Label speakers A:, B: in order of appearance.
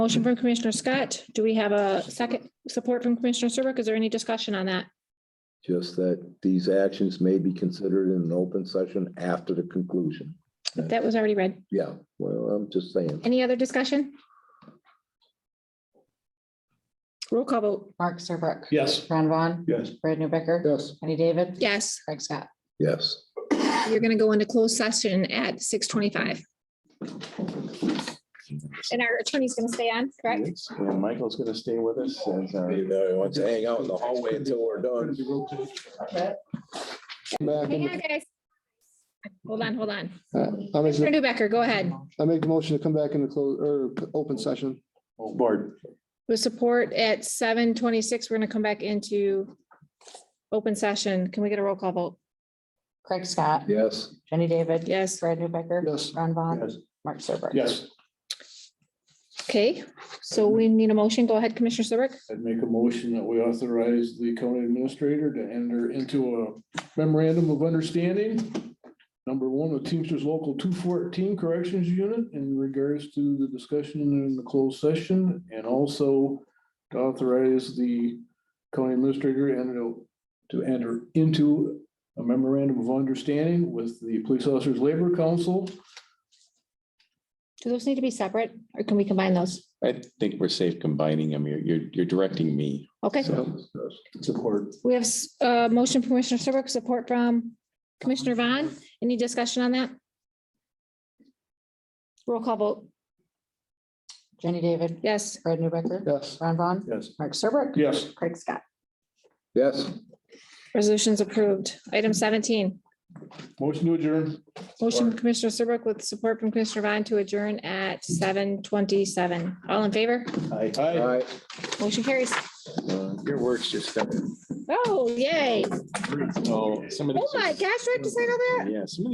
A: Motion from Commissioner Scott. Do we have a second support from Commissioner Serbrook? Is there any discussion on that?
B: Just that these actions may be considered in an open session after the conclusion.
A: That was already read.
B: Yeah, well, I'm just saying.
A: Any other discussion? Roll call vote.
C: Mark Serbrook.
D: Yes.
C: Ron Vaughn.
D: Yes.
C: Brad Newbecker.
D: Yes.
C: Jenny David.
A: Yes,
C: Craig Scott.
B: Yes,
A: you're going to go into closed session at six twenty-five. And our attorney's going to stay on, correct?
D: And Michael's gonna stay with us as our.
B: you know, he wants to hang out in the hallway until we're done.
A: Hang on, guys. Hold on, hold on.
E: uh,
A: Commissioner Newbecker, go ahead.
E: I make the motion to come back into close, or open session.
D: Oh, Board,
A: With support at seven twenty-six, we're going to come back into open session. Can we get a roll call vote?
C: Craig Scott.
B: Yes.
C: Jenny David.
A: Yes.
C: Brad Newbecker.
E: Yes.
C: Ron Vaughn.
D: yes,
C: Mark Serbrook.
D: yes,
A: Okay, so we need a motion. Go ahead, Commissioner Serbrook.
F: I'd make a motion that we authorize the county administrator to enter into a memorandum of understanding. Number one, with Teamsters Local two fourteen Corrections Unit in regards to the discussion in the closed session and also to authorize the county administrator and to- to enter into a memorandum of understanding with the Police Officers Labor Council
A: Do those need to be separate or can we combine those?
G: I think we're safe combining them. You're, you're, you're directing me.
A: Okay,
F: support.
A: we have s- a motion from Commissioner Serbrook, support from Commissioner Vaughn. Any discussion on that? Roll call vote.
C: Jenny David.
A: Yes.
C: Brad Newbecker.
E: Yes.
C: Ron Vaughn.
D: yes.
C: Mark Serbrook.
F: Yes.
C: Craig Scott.
B: Yes.
A: Resolution's approved. Item seventeen,
F: Motion to adjourn.
A: motion from Commissioner Serbrook with support from Commissioner Vaughn to adjourn at seven twenty-seven. All in favor?
D: Hi.
B: All right.
A: Motion carries.
B: Uh, Your work's just coming.
A: Oh, yay.
G: So some of
A: Oh, my gosh, do I have to sign all that?
G: Yeah, some of